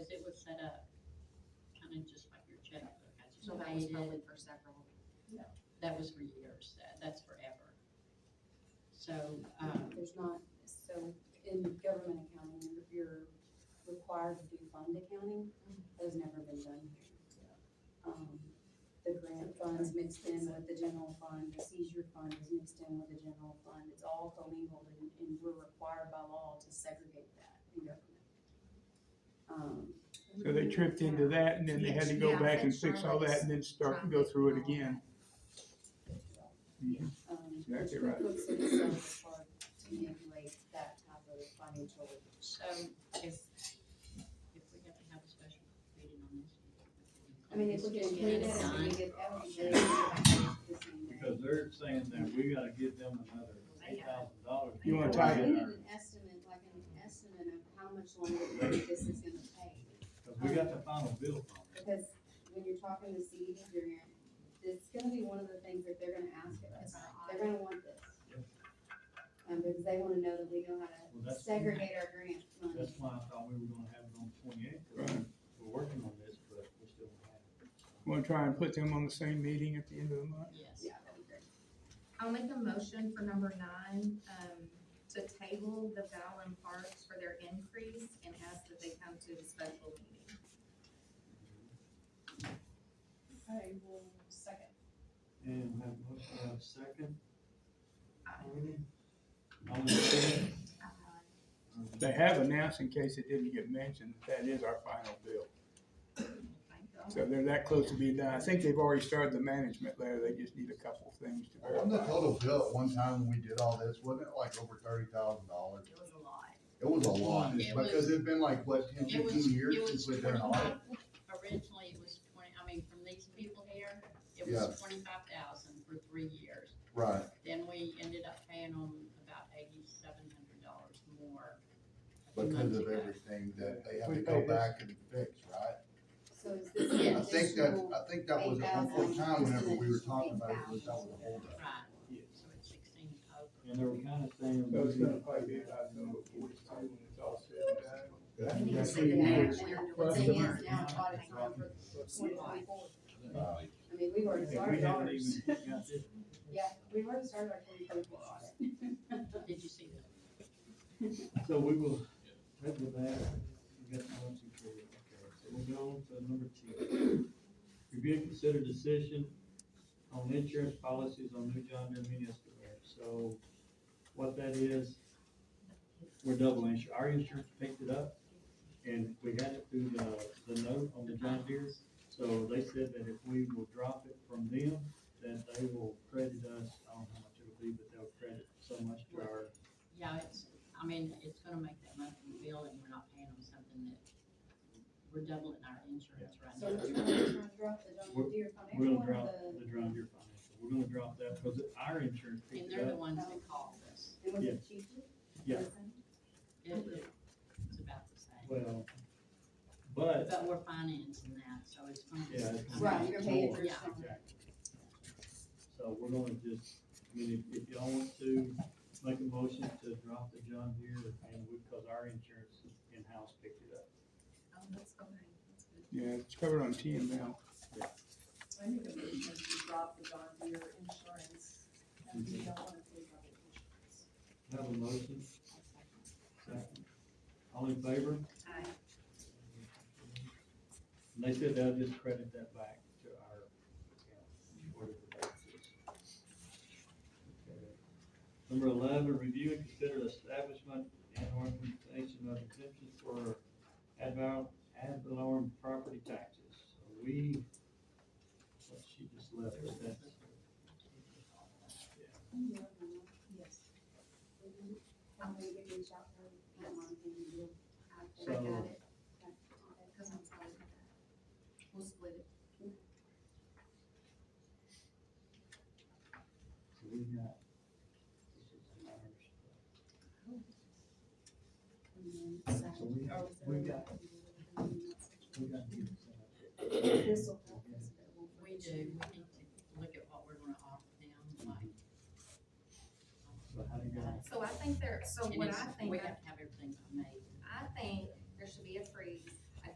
set up, kind of just like your checkbook. I just So that was paid it. probably for several. That was for years. That- That's forever. So, um, There's not, so in government accounting, you're- you're required to do fund accounting, that has never been done here. Um, The grant funds mixed in with the general fund, the seizure fund is mixed in with the general fund, it's all commingled and, and we're required by law to segregate that in government. Um, So they tripped into that and then they had to go Yeah, back and that's fix all that and then start and go through it again. Mhm. um, Exactly right. QuickBooks itself is hard to manipulate that type of financial so if, if we have to have a special meeting on this. I mean, if we just clean it and we get everything, we get back to the same day. Because they're saying that we gotta give them another eight thousand dollars. You wanna tie We need it? an estimate, like an estimate of how much longer we think this is gonna take, Cause we got the final bill from them. because when you're talking to CED grant, it's gonna be one of the things that they're gonna ask of us, they're gonna want this. Yep. Um, because they wanna know that we know how Well, to that's, segregate our grant that's money. why I thought we were gonna have it on twenty-eighth, Right. we're working on this, but we still don't have it. Wanna try and put them on the same meeting at the end of the month? Yes. Yeah, that'd be great. I'll make a motion for number nine, um, to table the Valen Parks for their increase and ask that they come to the special meeting. I will second. And we have a motion, we have a second. Aye. All in favor? They have announced, in case it didn't get mentioned, that that is our final bill. Thank God. So they're that close to being done. I think they've already started the management letter. They just need a couple of things to On the verify. total bill at one time when we did all this, wasn't it like over thirty thousand dollars? It was a lot. It was a lot, It because was- it'd been like, what, 10, 15 It was, years it was since we'd done an audit? twenty-five, originally it was twenty, I mean, from these people here, it Yeah. was twenty-five thousand for three years. Right, Then we ended up paying them about eighty-seven hundred dollars more. a few because months of ago. everything that they have We to go paid this- back and fix, right? So is this Yeah. an I think that, uh, additional, I think that was at one 8,000, time whenever we were just an talking about it, was that was 8,000. a holdup. Right, Yes. so it's sixteen over. And they were kinda saying. So it's gonna probably be about November fourth time when it's all said and done. That's We need to that's see the two years. management. the Well, thing the- is now audit's on for twenty twenty-four, Uh, I mean, we've already If we started haven't ours. even got this. Yeah, we've already started our twenty twenty-four audit. Did you see that? So we will, head with that, we got one, two, three, okay, so we'll go on to number two. Review and consider decision on insurance policies on New John Deere mini excavator, so what that is, we're double insured, our insurance picked it up, and we had it through the, the note on the John Deere, so they said that if we will drop it from them, that they will credit us, I don't know how much it'll be, but they'll credit so much to our Yeah, it's, I mean, it's gonna make that monthly bill and we're not paying them something that, we're doubling our insurance right So we're now. trying to drop the John Deere We're financial one gonna or drop the, the John Deere financial, we're gonna drop that because our insurance And picked it they're the up. ones that called us. and was it cheaper? Yeah. It, it's about the same. Well, but, But we're financing that, so it's gonna be. yeah. it's gonna Right, be you're paying more. for Yeah. something. Exactly. So we're gonna just, I mean, if, if y'all want to make a motion to drop the John Deere and we, because our insurance in-house picked it up. Oh, that's okay. That's good. Yeah, it's covered on TML. I need a motion to drop the John Deere insurance, and we don't wanna pay for the insurance. Have a motion, second. All in favor? Aye. And they said they'll just credit that back to our account, whatever that is. Number eleven, review and consider establishment and organization of exemptions for ad val- ad valorem property taxes. So We, what she just left us, that's. Yes. I'm gonna give you a shout out, I'm on the deal. I got So- it. Because I'm sorry. We'll split it. So we got. this is ours. So we have, we got, we got. these, uh, This will help us, but we'll. We do, we need to look at what we're gonna offer them, like. uh, So how do you guys? So I think they're, so And what it's- I think we I have to